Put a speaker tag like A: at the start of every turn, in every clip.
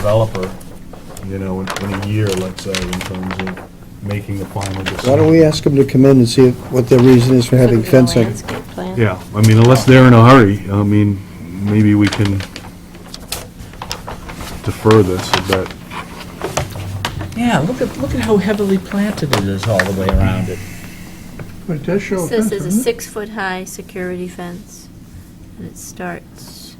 A: developer, you know, in in a year, let's say, in terms of making the final decision.
B: Why don't we ask them to come in and see what their reason is for having fencing?
C: Landscape plan.
A: Yeah, I mean, unless they're in a hurry, I mean, maybe we can defer this a bit.
D: Yeah, look at, look at how heavily planted it is all the way around it.
E: But it does show a
C: This is
E: fence,
C: a
E: doesn't it?
C: six-foot-high security fence, and it starts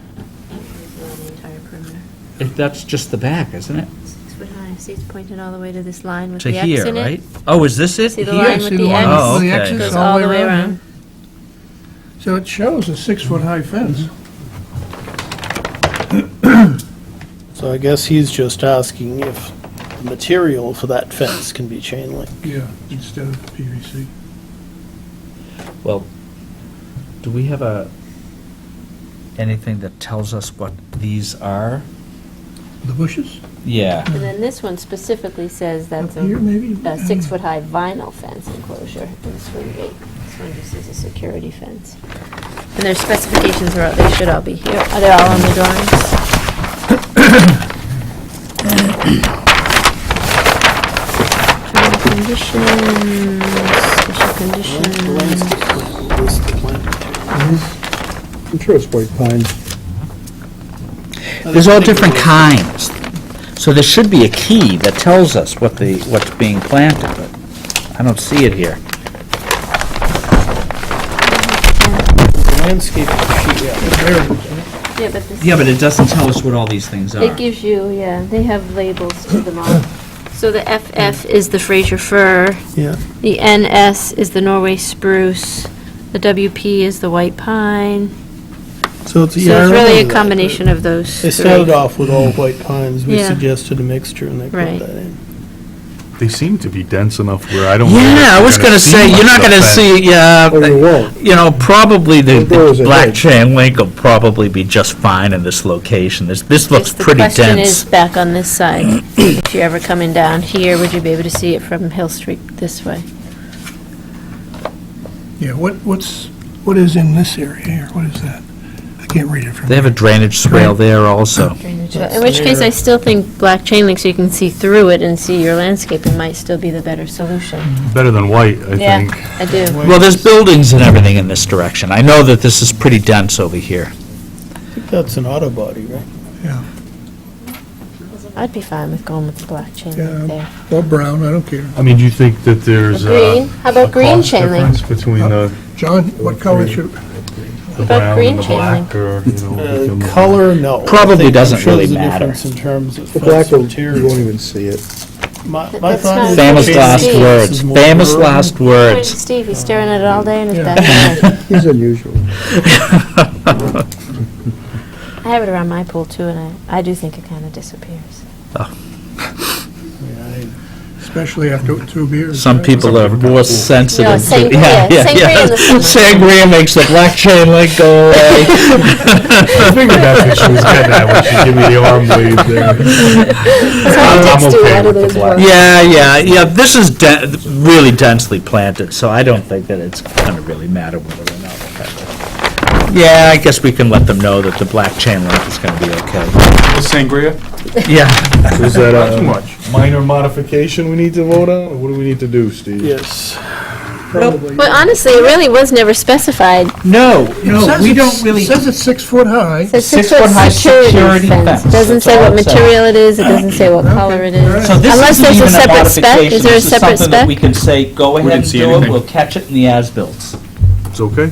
C: around the entire perimeter.
D: If That's just the back, isn't it?
C: Six-foot-high, see it's pointed all the way to this line with
D: To
C: the X
D: here,
C: in
D: right?
C: it?
D: Oh, is this it?
C: See the
D: Here?
C: line
E: see
C: with the
E: the
C: X?
E: line
D: with the Oh, okay.
C: Goes all the way around.
E: So it shows a six-foot-high fence.
F: So I guess he's just asking if the material for that fence can be chain link.
E: Yeah, instead of PVC.
D: Well, do we have a, anything that tells us what these are?
E: The bushes
D: Yeah.
C: And then this one specifically says
E: up
C: that's
E: here,
C: a
E: maybe?
C: a six-foot-high vinyl fence enclosure in swing gate. This one just is a security fence. And their specifications are, out. they should all be here, are they all on the drawings? General conditions, special
F: The
C: conditions.
F: landscape plan will list the plant.
B: I'm sure it's white pine.
D: There's all different kinds. So there should be a key that tells us what the, what's being planted, but I don't see it here.
F: The landscape sheet, yeah.
C: Yeah, but this.
D: Yeah, but it doesn't tell us what all these things are.
F: Ah.
C: It gives you, yeah, they have labels to them all. So the FF is the Fraser fir,
F: Yeah.
C: the NS is the Norway spruce, the WP is the white pine.
F: So it's,
C: So
F: yeah, I
C: it's really a
F: remember that, but
C: combination of those
F: They
C: three.
F: started off with all white pines, we
C: Yeah.
F: suggested a mixture, and they put
C: Right.
F: that in.
A: They seem to be dense enough where I don't. know if
D: Yeah, I
A: you're
D: was gonna say,
A: see
D: you're not
A: much of
D: gonna
A: that.
D: see, yeah,
B: Or you won't.
D: you know, probably the
B: There is
D: the
B: a
D: black
B: hedge.
D: chain link will probably be just fine in this location. This, this looks
C: Just the
D: pretty
C: question is
D: dense.
C: back on this side. If you're ever coming down here, would you be able to see it from Hill Street this way?
E: Yeah, what, what's, what is in this area here? What is that? I can't read it from
D: They have a drainage swale there also.
C: In which case, I still think black chain link so you can see through it and see your landscaping might still be the better solution.
A: Better than white, I
C: Yeah,
A: think.
C: I do.
D: Well, there's buildings and everything in this direction. I know that this is pretty dense over here.
F: I think that's an auto body, right?
E: Yeah,
C: I'd be fine with going with the black chain
E: Yeah.
C: link there.
E: or brown, I don't care.
A: I mean, do you think that there's
C: Green,
A: uh,
C: how
A: a
C: about green
A: cost
C: chain link?
A: difference between the
E: John, what color should,
A: the
C: about
A: brown
C: green
A: and the
C: chain
A: black, or, you know? we
F: Uh,
A: can-
F: Color, no. I
D: Probably
F: think- I'm
D: doesn't
F: sure
D: really
F: there's a
D: matter.
F: difference In terms of
B: The black
F: fence
B: one, you won't
F: material.
B: even see it.
F: My-
C: Th-
F: my
C: that's
F: thought
C: not
F: is
C: a
D: Famous
C: Chain
F: chain
D: last
F: link
C: link.
F: fence
D: words,
F: is more
D: famous
F: rural.
D: last words.
C: Steve, he's staring at it all day in his
E: Yeah.
C: backyard.
B: He's unusual.
C: I have it around my pool too, and I, I do think it kind of disappears.
E: especially after two beers?
D: Some
E: right?
D: people are more sensitive. to-
C: sangria.
D: yeah, yeah,
C: Sangria
D: yeah.
C: in the summer.
D: Sangria makes the black chain link go away.
A: I figured that's what she was getting at when she gave me the arm wave there. I'm- I'm okay with the black.
D: Yeah, yeah, yeah, this is de- really densely planted, so I don't think that it's gonna really matter whether or not. we have it. Yeah, I guess we can let them know that the black chain link is gonna be okay.
G: Sangria?
D: Yeah,
A: Is that uh,
G: Not too
A: a
G: much.
A: minor modification we need to vote on, or what do we need to do, Steve?
F: Yes.
C: Well, honestly, it really was never specified.
D: no,
E: It
D: no,
E: says
D: we
E: it's-
D: don't really,
E: It says it's six foot high.
C: It says
D: Six-foot high security fence.
C: Doesn't
D: That's
C: say
D: all
C: what
D: it says.
C: material it is, it doesn't say what color it is.
D: so this
C: Unless
D: isn't
C: there's a
D: even a
C: separate spec.
D: modification,
C: Is there a
D: this is
C: separate
D: something that
C: spec?
D: we can say, go ahead
G: didn't
D: and
G: see
D: do it,
G: anything.
D: we'll catch it in the as-bills.
A: It's okay?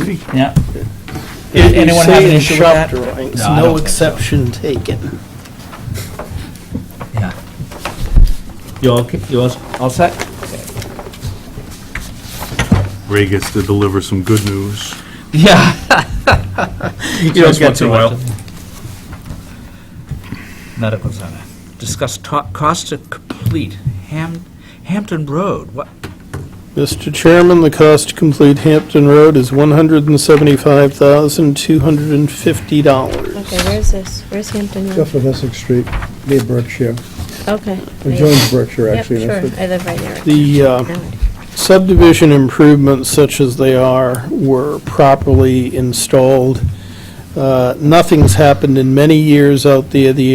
A: Me.
D: Yeah.
F: If
D: Did
F: you
D: anyone
F: say
D: have an
F: in
D: issue with
F: shop
D: that?
F: drawings,
D: No, I don't
F: No
D: think so.
F: exception taken.
D: You all, okay- you all, all set?
A: Ray gets to deliver some good news.
D: Yeah. You don't
G: Just
D: get
G: once
D: too
G: in a
D: much.
G: while.
D: Not it was on it. Discuss to- cost to complete Ham, Hampton Road. What,
F: Mr. Chairman, the cost to complete Hampton Road is $175,250.
C: Okay, where's this? Where's Hampton Road?
B: Off of Essex Street, near Berkshire,
C: Okay.
B: or joins Berkshire,
C: Yep,
B: actually.
C: sure,
B: that's it.
C: I live right near it.
F: The uh,
C: Now
F: subdivision improvements such as they are were properly installed. Uh, Nothing's happened in many years out there. The